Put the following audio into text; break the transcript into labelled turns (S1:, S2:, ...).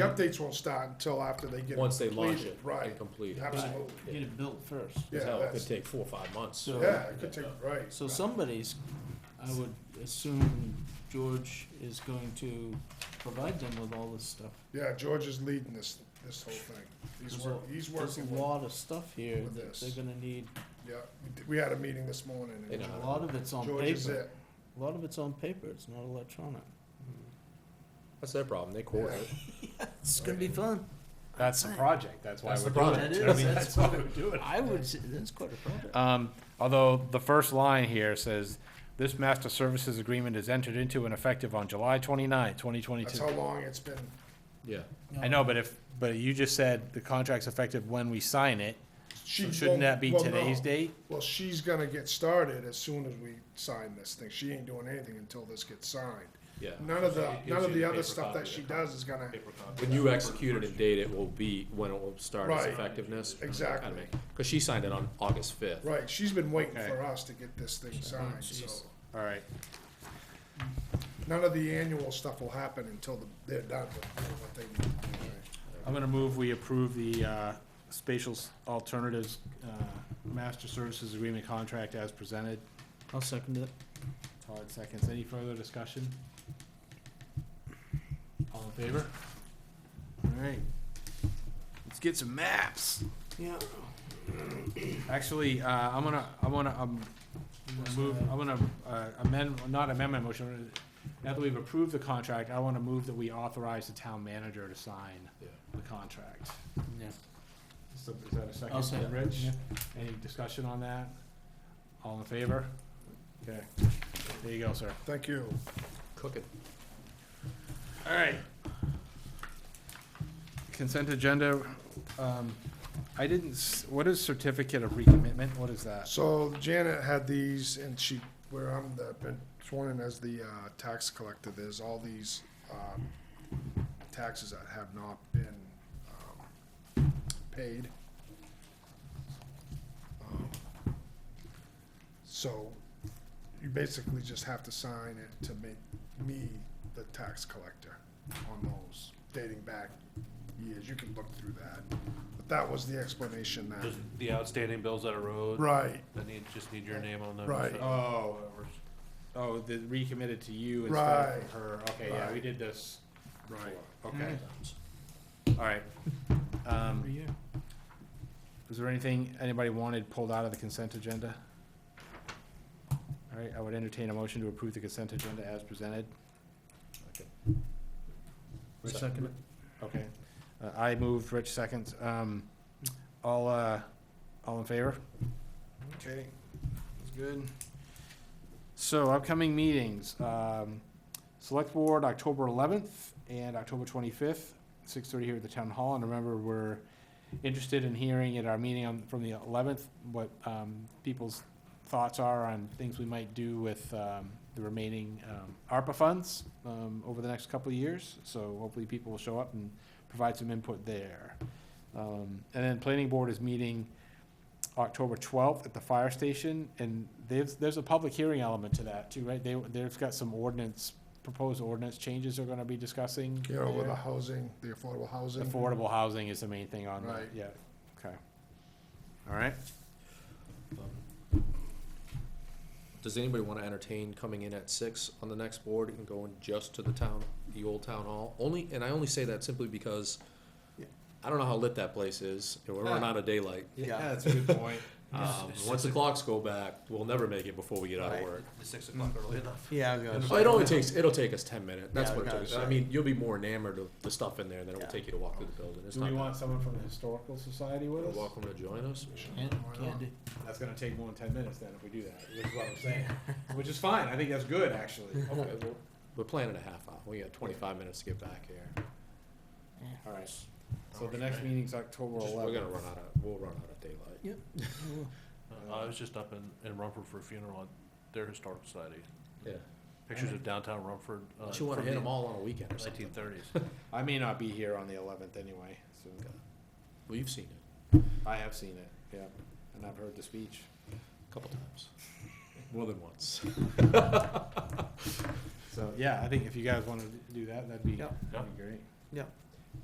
S1: The updates won't start until after they get.
S2: Once they launch
S1: completed,
S2: it
S1: Right,
S2: and complete it.
S1: absolutely.
S3: Get it built first.
S1: Yeah,
S2: Hell, it could
S1: that's,
S2: take four or five months.
S3: So-
S1: yeah, it could take, right.
S3: So somebody's, I would assume George is going to provide them with all this stuff.
S1: Yeah, George is leading this, this whole thing. He's
S3: There's a-
S1: working, he's
S3: There's
S1: working
S3: a
S1: with,
S3: lot of stuff here
S1: with
S3: that
S1: this.
S3: they're gonna need,
S1: yeah. We did- We had a meeting this morning. and
S2: They know.
S3: a lot of it's on
S1: Uh, George is
S3: paper.
S1: it.
S3: A lot of it's on paper, it's not electronic.
S2: That's their problem, they quote it.
S3: It's gonna be fun.
S4: That's the project, that's why
S2: That's
S4: we're
S2: the
S4: doing
S3: That
S4: it.
S3: is,
S4: I mean,
S3: that's
S4: that's
S3: what
S4: why we're doing it.
S3: I would, say that's quite a project.
S4: Um, although the first line here says, this master services agreement is entered into and effective on July twenty-nine, twenty
S1: That's how
S4: twenty-two.
S1: long it's been.
S2: Yeah.
S4: I know, but if, but you just said the contract's effective when we sign it,
S1: She
S4: so
S1: won't-
S4: shouldn't that be
S1: well, no.
S4: today's date?
S1: Well, she's gonna get started as soon as we sign this thing. She ain't doing anything until this gets signed.
S2: Yeah.
S1: None of the,
S5: It gives
S1: none of
S5: you
S1: the
S5: the
S1: other
S5: paper
S1: stuff
S5: copy
S1: that
S5: of
S1: she
S5: the
S1: does is gonna,
S5: paper copy.
S2: When you execute it and date it will be when it will start its
S1: Right.
S2: effectiveness.
S1: Exactly.
S2: Because she signed it on August fifth.
S1: right, she's been waiting
S4: Okay.
S1: for us to get this thing signed, so.
S4: All right,
S1: None of the annual stuff will happen until the- they're done with what they need. to do.
S4: I'm gonna move, we approve the, uh, spatial s- alternatives, uh, master services agreement contract as presented.
S3: I'll second it.
S4: Todd seconds. Any further discussion? All in favor? All right. Let's get some maps.
S3: Yeah.
S4: Actually, uh, I'm gonna, I'm gonna, um, move, I'm gonna uh, amend, not amend my motion. Now that we've approved the contract, I wanna move that we authorize the town manager to sign
S2: Yeah.
S4: the contract.
S3: Yeah.
S4: So is that a 2nd
S3: I'll second.
S4: Rich, any discussion on that? All in favor? Okay. There you go, sir.
S1: Thank you.
S2: Cook it.
S4: All right. Consent agenda, um, I didn't, s- what is certificate of recommitment? What is that?
S1: So Janet had these, and she, where I'm the, been sworn in as the uh, tax collector, there's all these um, taxes that have not been um, paid. Um, So you basically just have to sign it to make me the tax collector on those dating back years. You can look through that. But that was the explanation that,
S5: Just the outstanding bills that arose.
S1: right,
S5: That need, just need your name on them.
S1: Right.
S4: Oh, oh, the recommitted to you instead
S1: Right.
S4: of her. Okay, yeah, we did this.
S1: right.
S4: Okay. All right.
S3: Every
S4: Um,
S3: year.
S4: is there anything anybody wanted pulled out of the consent agenda? All right, I would entertain a motion to approve the consent agenda as presented.
S3: I'll Second it.
S4: Okay, Uh, I moved, Rich seconds. Um, All, uh, all in favor? Okay, that's good. So upcoming meetings, um, Select Board, October 11th and October 25th, 6:30 here at the Town Hall. And remember, we're interested in hearing at our meeting on, from the 11th, what um, people's thoughts are on things we might do with um, the remaining um, ARPA funds um, over the next couple of years. So hopefully people will show up and provide some input there. Um, And then Planning Board is meeting October 12th at the fire station, and there's, there's a public hearing element to that too, right? They, they've got some ordinance, proposed ordinance changes they're gonna be discussing.
S1: You know, with the
S4: there.
S1: housing, the affordable housing.
S4: Affordable housing is the main thing on that,
S1: Right.
S4: yeah, okay. All right,
S2: Um, Does anybody want to entertain coming in at six on the next board and going just to the town, the old town hall? Only, and I only say that simply because I don't know how lit that place is, and we're running out of daylight.
S3: Yeah.
S4: that's a good point.
S2: Um, once the clocks go back, we'll never make it before we get out of
S3: Right.
S2: work.
S5: The six o'clock early enough.
S3: Yeah, I'll go.
S2: Oh, It only takes, it'll take us ten minutes, that's
S3: Yeah,
S2: what it
S3: okay,
S2: takes.
S3: sure.
S2: I mean, you'll be more enamored of the stuff in there than it will
S3: Yeah.
S2: take you to walk through the building. It's
S4: Do
S2: not
S4: we
S2: bad.
S4: want someone from the historical society
S2: You're
S4: with us?
S2: Welcome to join us.
S3: And candy.
S4: That's gonna take more than ten minutes then if we do that, which is what I'm saying, which is fine, I think that's good, actually.
S2: Okay, well, We're planning a half hour, we got twenty-five minutes to get back here.
S4: All right, so the next meeting's October
S2: Just- We're gonna
S4: eleventh.
S2: run out of, we'll run out of daylight.
S4: Uh,
S5: I was Uh, just up in, in Rumford for a funeral at their historic society.
S2: Yeah.
S5: Pictures of downtown Rumford. uh,
S2: Don't you wanna
S5: from
S2: hit
S5: the
S2: them all on a weekend or something?
S5: Nineteen thirties.
S4: I may not be here on the eleventh anyway, so
S2: Well, you've seen it
S4: I have seen it, yeah, and I've heard the speech.
S2: a couple times, more than once.
S4: So, yeah, I think if you guys wanna do that, that'd be, that'd be great.
S3: Yeah.